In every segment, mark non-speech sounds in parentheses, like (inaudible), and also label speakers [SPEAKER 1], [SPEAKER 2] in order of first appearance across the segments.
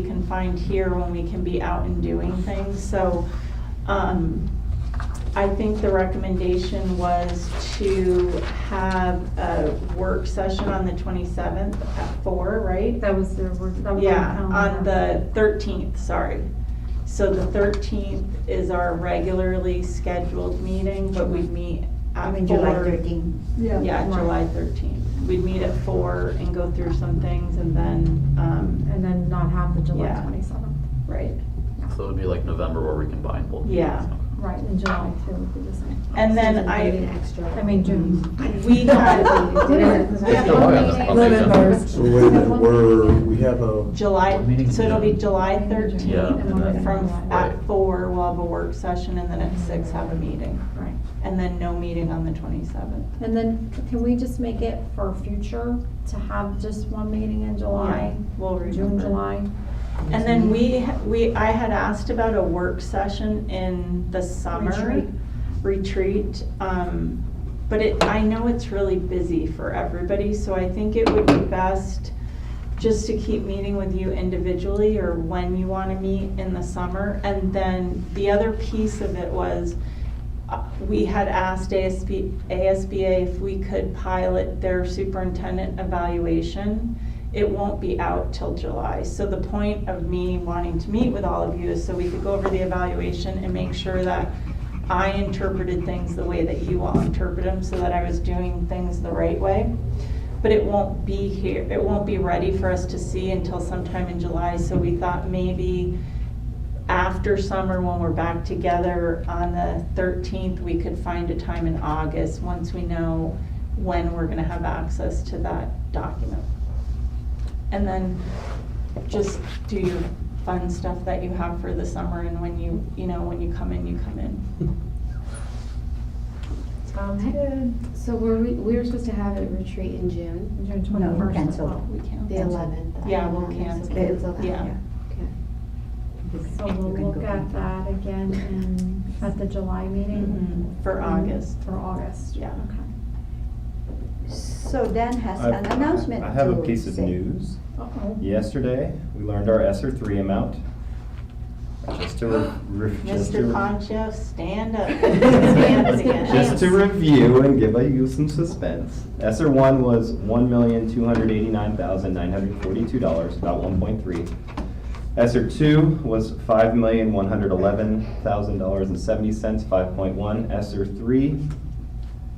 [SPEAKER 1] be confined here when we can be out and doing things. So um, I think the recommendation was to have a work session on the 27th at four, right?
[SPEAKER 2] That was their word. that was their
[SPEAKER 1] Yeah, on
[SPEAKER 2] calendar.
[SPEAKER 1] the 13th, sorry. So the 13th is our regularly scheduled meeting, but we meet
[SPEAKER 3] I
[SPEAKER 1] at
[SPEAKER 3] mean, July
[SPEAKER 1] four.
[SPEAKER 3] thirteen.
[SPEAKER 1] Yeah, July 13th. We'd meet at four and go through some things and then, um,
[SPEAKER 2] And then not have the July
[SPEAKER 1] Yeah.
[SPEAKER 2] twenty-seventh.
[SPEAKER 1] right.
[SPEAKER 4] So it would be like November where we combine both.
[SPEAKER 1] Yeah.
[SPEAKER 4] meetings.
[SPEAKER 2] Right, and July too would be the same.
[SPEAKER 1] And then
[SPEAKER 3] Susan gave
[SPEAKER 1] I,
[SPEAKER 3] an extra.
[SPEAKER 2] I Mm. mean, June. (laughs)
[SPEAKER 1] we had
[SPEAKER 5] (laughs)
[SPEAKER 4] Oh, yeah, that's probably
[SPEAKER 2] Eleven
[SPEAKER 4] done.
[SPEAKER 2] birds.
[SPEAKER 5] So wait a minute, we're, we have a,
[SPEAKER 1] July, so it'll be July
[SPEAKER 4] Yeah,
[SPEAKER 1] thirteenth
[SPEAKER 4] and then-
[SPEAKER 1] from
[SPEAKER 4] Right.
[SPEAKER 1] at four, we'll have a work session and then at six have a meeting.
[SPEAKER 2] Right.
[SPEAKER 1] And then no meeting on the twenty-seventh.
[SPEAKER 2] And then can we just make it for future to have just one meeting in July?
[SPEAKER 1] We'll
[SPEAKER 2] June,
[SPEAKER 1] remember.
[SPEAKER 2] July?
[SPEAKER 1] And then we, we, I had asked about a work session in the summer
[SPEAKER 2] Retreat.
[SPEAKER 1] retreat. Um, but it, I know it's really busy for everybody, so I think it would be best just to keep meeting with you individually or when you want to meet in the summer. And then the other piece of it was, uh, we had asked ASB, ASBA if we could pilot their superintendent evaluation. It won't be out till July. So the point of me wanting to meet with all of you is so we could go over the evaluation and make sure that I interpreted things the way that you all interpret them, so that I was doing things the right way. But it won't be here, it won't be ready for us to see until sometime in July, so we thought maybe after summer, when we're back together on the thirteenth, we could find a time in August, once we know when we're gonna have access to that document. And then just do your fun stuff that you have for the summer, and when you, you know, when you come in, you come in.
[SPEAKER 2] Sounds
[SPEAKER 6] So were we, we were supposed to have a retreat in June,
[SPEAKER 2] June
[SPEAKER 3] No,
[SPEAKER 2] twenty-first.
[SPEAKER 3] canceled.
[SPEAKER 1] We can.
[SPEAKER 6] the eleventh.
[SPEAKER 1] Yeah, we'll cancel.
[SPEAKER 3] Cancel
[SPEAKER 1] that, yeah.
[SPEAKER 2] So
[SPEAKER 3] You
[SPEAKER 2] we'll
[SPEAKER 3] can
[SPEAKER 2] look
[SPEAKER 3] go
[SPEAKER 2] at
[SPEAKER 3] back.
[SPEAKER 2] that again in, at the July meeting?
[SPEAKER 1] Mhm, For August.
[SPEAKER 2] Mm-hmm. For August?
[SPEAKER 1] Yeah.
[SPEAKER 2] Okay.
[SPEAKER 3] So Dan has
[SPEAKER 7] I've-
[SPEAKER 3] an announcement
[SPEAKER 7] I have a
[SPEAKER 3] to
[SPEAKER 7] piece of
[SPEAKER 3] say.
[SPEAKER 7] news.
[SPEAKER 2] Uh-oh.
[SPEAKER 7] Yesterday, we learned our ESER three amount. Just to, re-
[SPEAKER 3] (gasps)
[SPEAKER 7] re- just to,
[SPEAKER 1] Mr.
[SPEAKER 3] (laughs)
[SPEAKER 7] (laughs) re-
[SPEAKER 1] Concho, stand
[SPEAKER 7] (laughs)
[SPEAKER 1] up.
[SPEAKER 3] Stand
[SPEAKER 1] again.
[SPEAKER 7] just
[SPEAKER 1] (laughs)
[SPEAKER 7] to review and give you some suspense. ESER one was one million, two hundred eighty-nine thousand, nine hundred forty-two dollars, about one point three. ESER two was five million, one hundred eleven thousand dollars and seventy cents, five point one. ESER three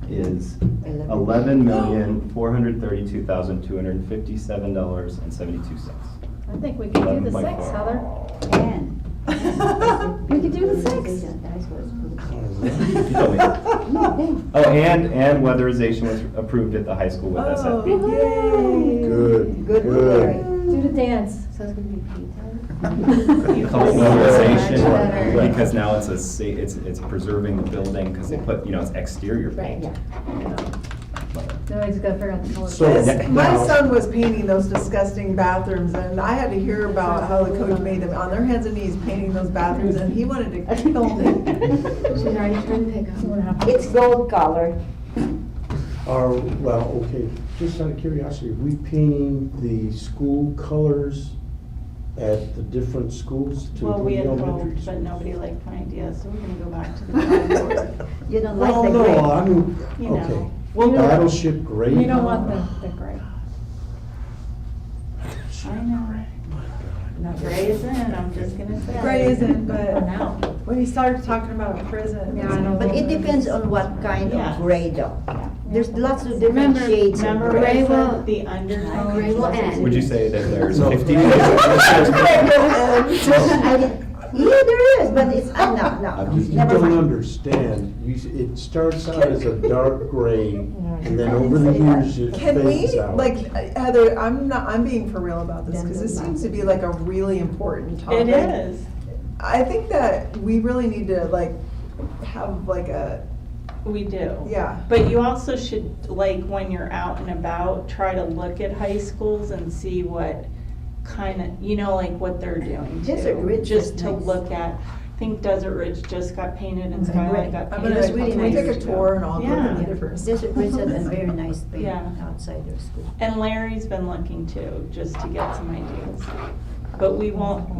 [SPEAKER 7] is eleven million, four hundred thirty-two thousand, two hundred fifty-seven dollars and seventy-two cents.
[SPEAKER 2] I think we can do the
[SPEAKER 7] Eleven point
[SPEAKER 2] six,
[SPEAKER 7] four.
[SPEAKER 2] Heather. (laughs)
[SPEAKER 3] Dan.
[SPEAKER 2] You can do the six.
[SPEAKER 7] (laughs) Oh, You told me.
[SPEAKER 2] (laughs)
[SPEAKER 3] No, (laughs) Dan.
[SPEAKER 7] Oh, and, and weatherization was approved at the high school with us. at-
[SPEAKER 3] Oh.
[SPEAKER 5] good,
[SPEAKER 3] Good
[SPEAKER 5] good.
[SPEAKER 2] Do the dance.
[SPEAKER 6] So it's gonna
[SPEAKER 7] (laughs)
[SPEAKER 6] be painted.
[SPEAKER 7] It's called
[SPEAKER 1] Much
[SPEAKER 7] Weatherization,
[SPEAKER 6] better.
[SPEAKER 7] because now it's a, sa- it's, it's preserving the building, because they put, you know, it's exterior paint.
[SPEAKER 6] (laughs)
[SPEAKER 3] Yeah.
[SPEAKER 2] No, I just gotta figure out the color.
[SPEAKER 5] So-
[SPEAKER 7] Yeah.
[SPEAKER 8] My
[SPEAKER 5] Now-
[SPEAKER 8] son was painting those disgusting bathrooms, and I had to hear about how the coach made them on their hands and knees painting those bathrooms, and he wanted to kill me.
[SPEAKER 6] She's
[SPEAKER 7] (laughs)
[SPEAKER 6] already trying to pick up.
[SPEAKER 3] It's gold colored.
[SPEAKER 5] Are, well, okay, just out of curiosity, are we painting the school colors at the different schools to
[SPEAKER 1] Well, we
[SPEAKER 5] the
[SPEAKER 1] had
[SPEAKER 5] elementary
[SPEAKER 1] hoped,
[SPEAKER 5] schools?
[SPEAKER 1] but nobody liked my idea, so we're gonna go back to the drawing (laughs) board,
[SPEAKER 3] You don't
[SPEAKER 5] Well,
[SPEAKER 3] like the
[SPEAKER 5] no,
[SPEAKER 3] gray.
[SPEAKER 5] I'm,
[SPEAKER 1] you
[SPEAKER 5] okay.
[SPEAKER 1] know.
[SPEAKER 5] Battleship gray.
[SPEAKER 2] You don't want the, the gray.
[SPEAKER 1] I know. Gray is in, I'm just gonna say.
[SPEAKER 8] Gray isn't,
[SPEAKER 2] For
[SPEAKER 8] but
[SPEAKER 2] now.
[SPEAKER 8] (laughs) when he started talking about prison.
[SPEAKER 2] Yeah, I know.
[SPEAKER 3] But it depends on what kind
[SPEAKER 1] Yeah.
[SPEAKER 3] of gray though. There's lots of different
[SPEAKER 6] Remember-
[SPEAKER 3] shades of
[SPEAKER 1] Remember,
[SPEAKER 3] gray.
[SPEAKER 1] gray
[SPEAKER 6] Gray
[SPEAKER 1] will,
[SPEAKER 6] will-
[SPEAKER 1] the undertone.
[SPEAKER 6] Gray will end.
[SPEAKER 7] Would you say that there's
[SPEAKER 5] No. (laughs)
[SPEAKER 7] fifty?
[SPEAKER 3] (laughs) I didn't- Yeah, there is, but it's, uh, no, no, no,
[SPEAKER 5] You
[SPEAKER 3] never
[SPEAKER 5] don't
[SPEAKER 3] mind.
[SPEAKER 5] understand. You, s- it starts out as a dark gray, and then over the years, it
[SPEAKER 8] Can
[SPEAKER 5] fades
[SPEAKER 8] we,
[SPEAKER 5] out.
[SPEAKER 8] like, Heather, I'm not, I'm being for real about this, because this seems to be like a really important topic.
[SPEAKER 1] It is.
[SPEAKER 8] I think that we really need to, like, have like a,
[SPEAKER 1] We do.
[SPEAKER 8] yeah.
[SPEAKER 1] But you also should, like, when you're out and about, try to look at high schools and see what kind of, you know, like what they're doing too.
[SPEAKER 3] Desert Ridge
[SPEAKER 1] Just
[SPEAKER 3] is
[SPEAKER 1] to
[SPEAKER 3] nice.
[SPEAKER 1] look at, I think Desert Ridge just got painted and
[SPEAKER 3] Mhm.
[SPEAKER 1] Skyline
[SPEAKER 3] Right.
[SPEAKER 1] got
[SPEAKER 8] I'm
[SPEAKER 1] painted.
[SPEAKER 8] gonna,
[SPEAKER 3] It's
[SPEAKER 1] a
[SPEAKER 3] really
[SPEAKER 8] can
[SPEAKER 1] couple
[SPEAKER 8] we
[SPEAKER 3] nice.
[SPEAKER 8] take a
[SPEAKER 1] years ago.
[SPEAKER 8] tour and all look at
[SPEAKER 1] Yeah.
[SPEAKER 8] the difference?
[SPEAKER 3] This is Richard and very nice paint
[SPEAKER 1] Yeah.
[SPEAKER 3] outside of school.
[SPEAKER 1] And Larry's been looking too, just to get some ideas. but we won't